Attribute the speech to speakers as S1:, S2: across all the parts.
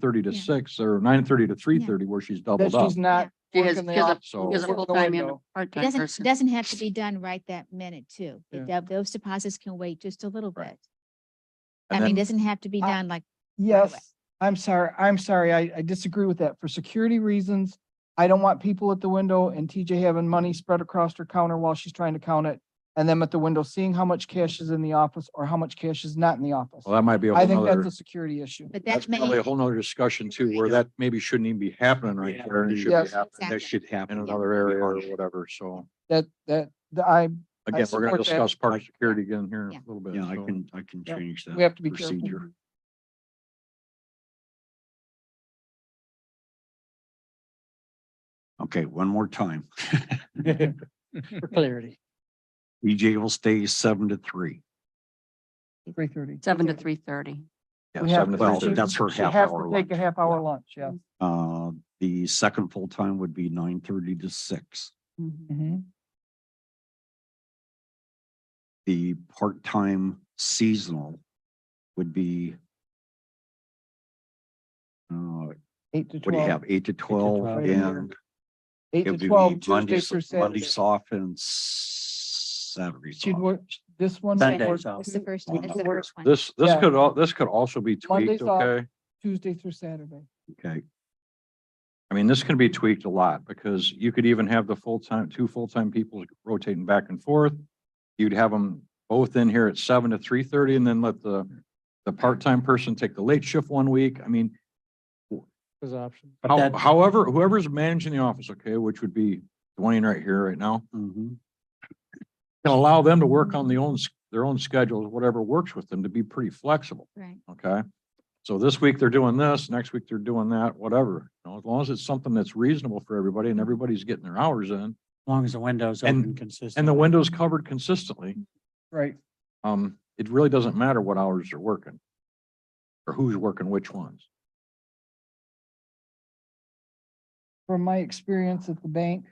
S1: thirty to
S2: Yeah.
S1: six or nine thirty to three thirty where she's
S3: That
S1: doubled up.
S3: she's not
S4: She has,
S3: working the
S4: she has a-
S3: op-
S1: so-
S4: she has a
S3: working the
S4: full-time and a
S3: window.
S2: It
S4: part-time
S2: doesn't,
S4: person.
S2: doesn't have to be done right that minute too. It
S1: Yeah.
S2: do- Those deposits can wait just a little
S1: Right.
S2: bit.
S1: And
S2: I mean,
S1: then-
S2: doesn't have to be
S3: I-
S2: done like, away.
S3: Yes, I'm sorry, I'm sorry, I, I disagree with that. For security reasons, I don't want people at the window and TJ having money spread across her counter while she's trying to count it. And them at the window seeing how much cash is in the office or how much cash is not in the office.
S1: Well, that might be a
S3: I
S1: whole
S3: think that's
S1: nother,
S3: a security issue.
S2: but
S1: that's
S2: that may.
S1: probably a whole nother discussion too, where that maybe shouldn't even be happening right
S5: Yeah.
S1: there. and it should be
S3: Yes.
S1: happening
S2: Exactly.
S5: That should happen.
S1: In another area or whatever. So
S3: That, that, the- I,
S1: again, we're gonna
S3: support that.
S1: discuss park security again here in a
S2: Yeah.
S1: little bit.
S5: Yeah, I
S1: so.
S5: can, I can
S3: Yep.
S5: change that.
S3: we have to be careful.
S5: procedure. Okay, one more time.
S3: For clarity.
S5: EJ will stay seven to three.
S3: Three thirty.
S4: Seven to three thirty.
S5: Yeah,
S3: We have
S1: seven to
S3: to-
S1: three
S5: Well,
S1: thirty.
S5: that's her
S3: She
S5: half
S3: has
S5: hour.
S3: to take a
S5: lunch.
S3: half hour lunch, yeah.
S5: Uh, the second full-time would be nine thirty to six.
S3: Mm-hmm.
S5: Mm-hmm. The part-time seasonal would be uh,
S3: Eight to
S5: what do you
S3: twelve,
S5: have, eight to twelve
S3: 12.
S5: and
S3: eight
S5: it would
S3: to
S5: be
S3: twelve,
S5: Monday,
S3: Tuesday
S5: s-
S3: through
S5: Monday
S3: Saturday.
S5: off and s- Saturdays
S3: She'd
S5: off.
S3: work, this one,
S5: Sundays
S3: works
S5: off.
S2: It's the first,
S5: Well,
S2: it's
S5: that
S2: the first one.
S1: This, this
S3: Yeah.
S1: could all, this could also be tweaked,
S3: Monday's off.
S1: okay?
S3: Tuesday through Saturday.
S5: Okay,
S1: I mean, this can be tweaked a lot because you could even have the full-time, two full-time people rotating back and forth. You'd have them both in here at seven to three thirty and then let the, the part-time person take the late shift one week. I mean,
S3: There's options.
S1: how- however, whoever's managing the office, okay, which would be Dwayne right here right now,
S6: Mm-hmm.
S5: Mhm.
S1: can allow them to work on the own, s- their own schedules, whatever works with them to be pretty flexible.
S2: Right.
S1: Okay. So this week they're doing this, next week they're doing that, whatever, you know, as long as it's something that's reasonable for everybody and everybody's getting their hours in.
S6: long as the window's
S1: And-
S6: open consistently.
S1: And the window's covered consistently,
S3: Right.
S1: um, it really doesn't matter what hours they're working. Or who's working which ones.
S3: from my experience at the bank,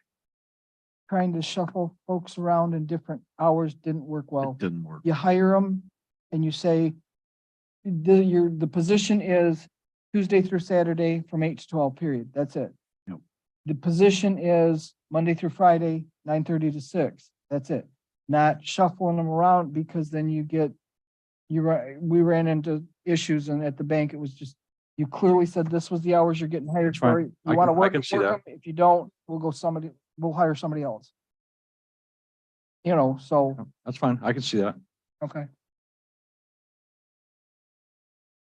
S3: trying to shuffle folks around in different hours didn't work
S5: it
S3: well.
S5: didn't work.
S3: You hire them and you say, the, your, the position is Tuesday through Saturday from eight to twelve, period. That's it.
S5: Yep.
S3: The position is Monday through Friday, nine thirty to six. That's it. Not shuffling them around because then you get, you, ri- we ran into issues and at the bank, it was just, you clearly said this was the hours you're getting hired
S1: That's fine.
S3: for. You
S1: I
S3: want to
S1: can- I
S3: work.
S1: can
S3: it,
S1: see
S3: work
S1: that.
S3: 'em. If you don't, we'll go somebody, we'll hire somebody else. You know, so,
S1: That's fine. I can see that.
S3: okay.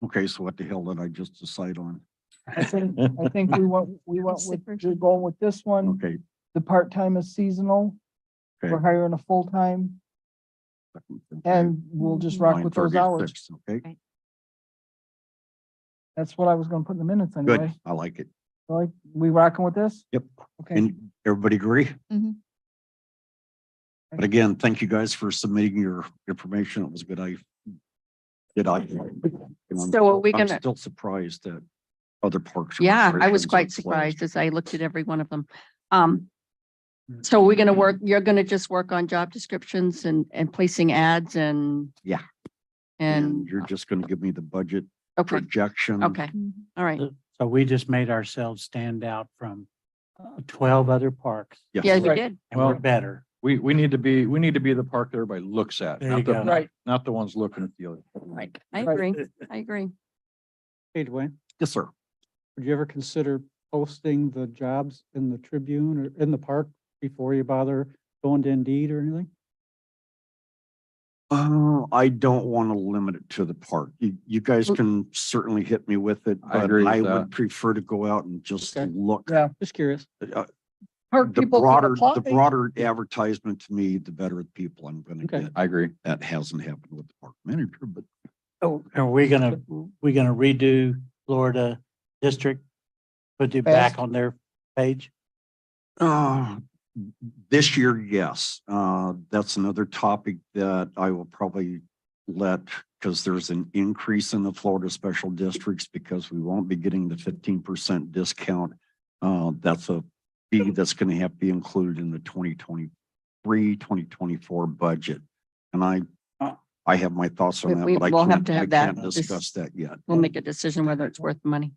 S5: Okay, so what the hell did I just decide on?
S3: I think, I think we went, we went
S2: It's the
S3: with,
S2: first
S3: we're
S2: one.
S3: going with this one.
S5: Okay,
S3: The part-time is seasonal. We're
S5: Okay.
S3: hiring a full-time
S5: second, okay,
S3: and we'll just rock with those
S5: 9:30 to
S3: hours.
S5: 6, Okay,
S3: That's what I was gonna put in the minutes anyway.
S5: good. I like it.
S3: Like, we rocking with this?
S5: Yep.
S3: Okay,
S5: And everybody agree?
S2: Mhm.
S5: But again, thank you guys for submitting your information. It was a good. I did I. and I'm-
S4: So are we
S5: I'm
S4: gonna-
S5: Still surprised that other parks. and
S4: Yeah, I
S5: recreations
S4: was
S5: are
S4: quite
S5: closed.
S4: surprised as I looked at every one of them. Um,
S3: Mm.
S4: so we're gonna work, you're gonna just work on job descriptions and, and placing ads and.
S5: Yeah. And
S4: And,
S5: you're just gonna give me the budget
S4: okay,
S5: projection.
S4: okay,
S2: Mhm.
S4: all right.
S6: So we just made ourselves stand out from twelve other parks
S5: Yes.
S4: Yeah, we
S3: Right.
S4: did.
S6: and we're
S1: Well-
S6: better.
S1: We, we need to be, we need to be the park that everybody looks at,
S6: There
S1: not
S6: you
S1: the,
S6: go.
S3: right.
S1: not the ones looking at the other.
S4: Right. I
S3: Right.
S4: agree, I agree.
S7: Hey Dwayne,
S5: Yes, sir.
S7: would you ever consider posting the jobs in the Tribune or in the park before you bother going to Indeed or anything?
S5: Uh, I don't want to limit it to the park. You, you guys
S4: Mm.
S5: can certainly hit me with it,
S1: I
S5: but
S1: agree with
S5: I
S1: that.
S5: would prefer to go out and just
S7: Okay.
S5: look.
S3: Yeah.
S7: Just curious.
S5: Uh,
S3: Hurt
S5: The
S3: people from
S5: broader, the
S3: applying.
S5: broader advertisement to me, the better the people I'm gonna
S7: Okay.
S5: get.
S1: I agree.
S5: That hasn't happened with the park manager, but
S6: Oh. Are we gonna, we gonna redo Florida District? Put it
S3: Fast.
S6: back on their page?
S5: Uh, this year, yes. Uh, that's another topic that I will probably let, because there's an increase in the Florida special districts because we won't be getting the fifteen percent discount. Uh, that's a fee that's going to have to be included in the 2023, 2024 budget. And I, I have my thoughts on
S4: We-
S5: that,
S4: Uh, we
S5: but I
S4: will have
S5: can't,
S4: to
S5: I
S4: have that
S5: can't
S4: dis-
S5: discuss that yet.
S4: We'll make a decision whether it's worth the money.